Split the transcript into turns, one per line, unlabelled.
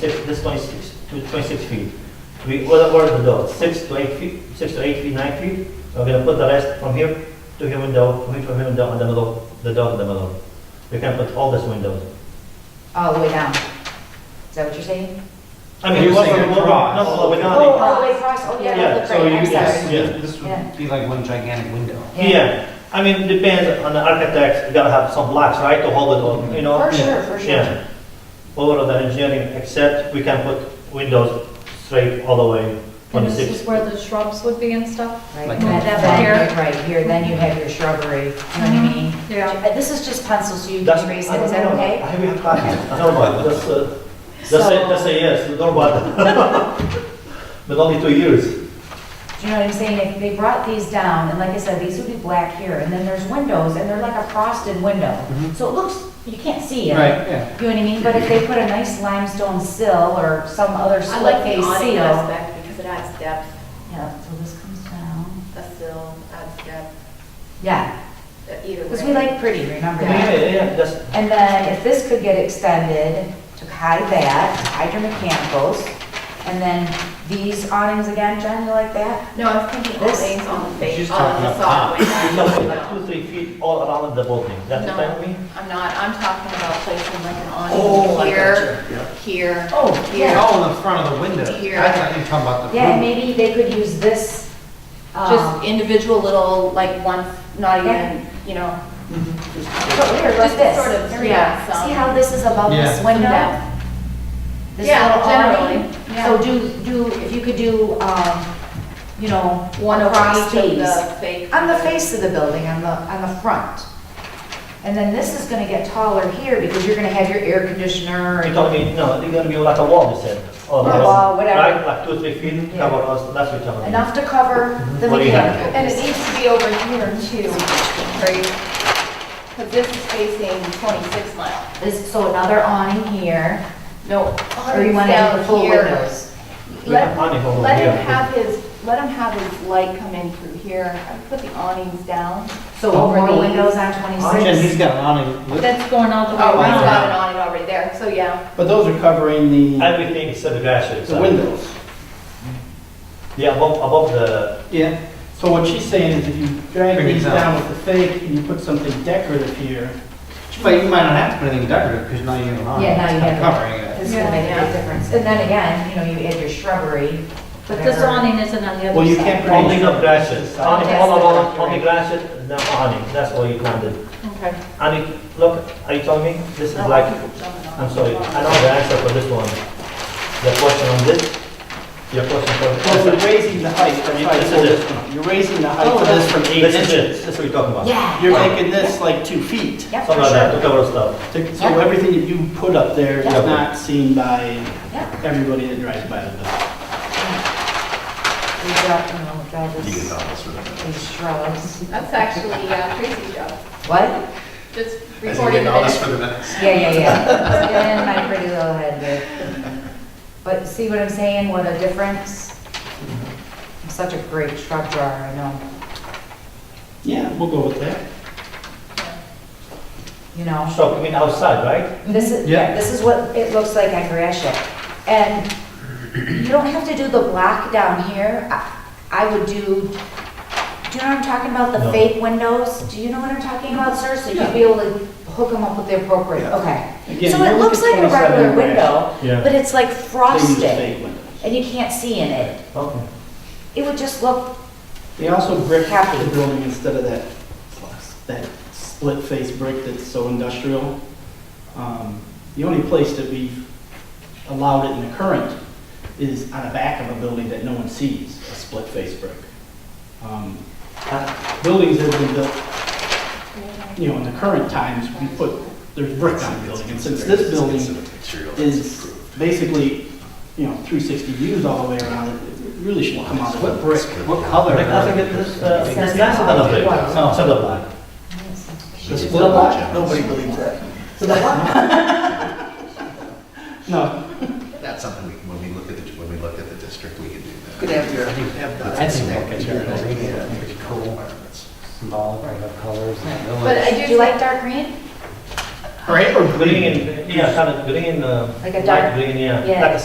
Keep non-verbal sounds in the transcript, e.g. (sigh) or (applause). This this 26 to 26 feet. We order where the door, 6 to 8 feet, 6 to 8 feet, 9 feet. We're gonna put the rest from here to here window, from here to here window in the middle, the door in the middle. We can put all these windows.
all the way down. Is that what you're saying?
I mean,
You're
what-
saying
what-
across.
No, no, we're
Oh,
not.
all the way across, oh,
Yeah,
yeah, that looks
so
great,
you-
I'm
yes,
sorry.
yeah.
This would be like one gigantic window.
Yeah, I mean, depends on the architect, you gotta have some blocks, right, to hold it on, you know?
For sure, for sure.
Yeah, over the engineering, except we can put windows straight all the way,
And this is
26.
where the shrubs would be and stuff?
Right,
Like
that-
that.
that- right here, then you have your shrubbery, you know what
Mm-hmm.
I
Uh-huh.
mean?
Yeah.
Uh, This is just pencil, so you
That's-
can erase it, is that okay?
I have a copy. No, but that's, uh, that's a,
So-
that's a yes, no, but, (laughs) but only two
(laughs)
years.
Do you know what I'm saying? If they brought these down, and like I said, these would be black here, and then there's windows, and they're like a frosted window.
Mhm.
So it looks, you can't see it.
Right, yeah.
You know what I mean? But if they put a nice limestone sill or some other
I
slick
like the
face
awning
seal.
aspect because it adds depth,
Yeah, so this comes down.
a sill adds depth,
Yeah,
uh, either way.
because we like pretty, remember
Yeah.
that?
Yeah, yeah, that's,
And then if this could get extended to hide that, hide your mechanicals, and then these awnings again, Jen, you like that?
No, I was thinking all
This-
things on the
She's
face, Oh, on the
talking
facade.
up
it's something like two,
window.
three feet all around the building, that's
No,
what I mean?
I'm not, I'm talking about placing like an
Oh, I
awning here, here,
Oh,
Yeah.
Oh, in the front of the window.
Here.
I thought you were talking about the.
Yeah, and
roof.
maybe they could use this,
just
um,
individual little, like one, not
Yeah.
even, you know,
but here, like
just
this.
sort of,
There we go.
yeah, some-
See how this is above this
Yeah.
some
window?
depth.
This
Yeah,
little
generally,
awning?
yeah.
So do, do, if you could do, um, you know,
One
over
across to
each eaves.
the fake.
On the face of the building, on the, on the front. And then this is gonna get taller here because you're gonna have your air conditioner
You
and.
told me, no, it's gonna be like a wall, you said. all
Yeah,
around,
wall, whatever.
Right, like two, three feet,
Yeah.
cover us, that's what you're
Enough to cover the
What do you have?
mechanical.
And it needs to be over here too, right? Because this is facing 26 mile.
This- So another awning here,
No.
or you wanna have the full
here.
windows.
Let
Yeah, awning over
him, let him
here.
have his, let him have his light come in through here. I put the awnings down.
So
Oh,
more
these.
windows on
Jen, he's
twenty-six.
got an awning. with-
That's going all the
Oh, he's
way around.
got an awning already there, so yeah.
But those are covering the,
Everything except the garage.
the windows.
Yeah, above, above the,
Yeah. So what she's saying is if you drag
Bring it
these
down.
down with the fake and you put something decorative here,
But you might not have to put anything decorative because now you have an awning.
Yeah, now
It's
you
kinda
have it.
Covering it.
This is gonna make a big
Yeah.
difference. And then again, you know, you add your shrubbery.
But this
whatever.
awning isn't on the other side.
well, you can't put
only
any
the grasses, only, all
Yes.
around, only grasses, no awning, that's all you planted.
Okay.
And it, look, are you telling me, this is like I'm sorry, I know the answer for this one. The question on this, your question for.
Well, you're raising the height, that's why I
This
pulled
is it.
this one. up. You're raising the height
Oh,
of this from eight
This is it,
inches.
this is what you're talking about.
Yeah.
You're
yeah,
making this like two feet.
Yeah, for
Something like that, to
sure.
cover stuff.
To- So everything that you put up there is
Yeah.
not seen by
Yeah.
everybody that drives by the building.
We got, you know, got this- these shrubs.
That's actually uh, Tracy's job,
What?
just
As you
recording
get
the
all this for
minutes.
the minutes.
Yeah, yeah, yeah. Get in my pretty little head there. But see what I'm saying? What a difference. I'm such a great shrub drawer, I know,
Yeah, we'll go with that.
you know?
So, I mean, outside, right?
This is,
Yeah.
this is what it looks like on Grashit. And you don't have to do the black down here. I I would do, do you know what I'm talking about? The
No.
fake windows? Do you know what I'm talking about, sir? So you'd be able to hook them up with the appropriate,
Yeah.
okay.
Again,
So
you're
it
looking
looks like a
27
regular
grand.
window,
Yeah.
but it's like
uh, They use
frosted.
fake windows.
and you can't see in it.
Okay.
It would just look,
They also brick half
Happy.
the building instead of that, that split face brick that's so industrial. Um, The only place that we've allowed it in the current is on the back of a building that no one sees, a split face brick. Um, that- Buildings that have been built, you know, in the current times, we put, there's brick on the building. And since this building is basically, you know, 360 views all the way around, it it really shouldn't come out of
What
a
brick, what color?
Like, I think it is, uh,
It
it's
says
nicer than a
outside.
brick,
Wow.
instead of black.
The
It's
split
not
block?
Jim.
Nobody believes that.
No,
That's something we, when we look at the, when we look at the district, we can do that.
Could have your,
That's a brick, it's
Yeah,
really
yeah,
cool.
make it cool.
Symbolic of colors and
do
But
village.
I
you
do,
like dark green?
Right, or green?
Green, yeah, kind of green, uh,
Like a
light
dark-
green, yeah.
yeah.
Like a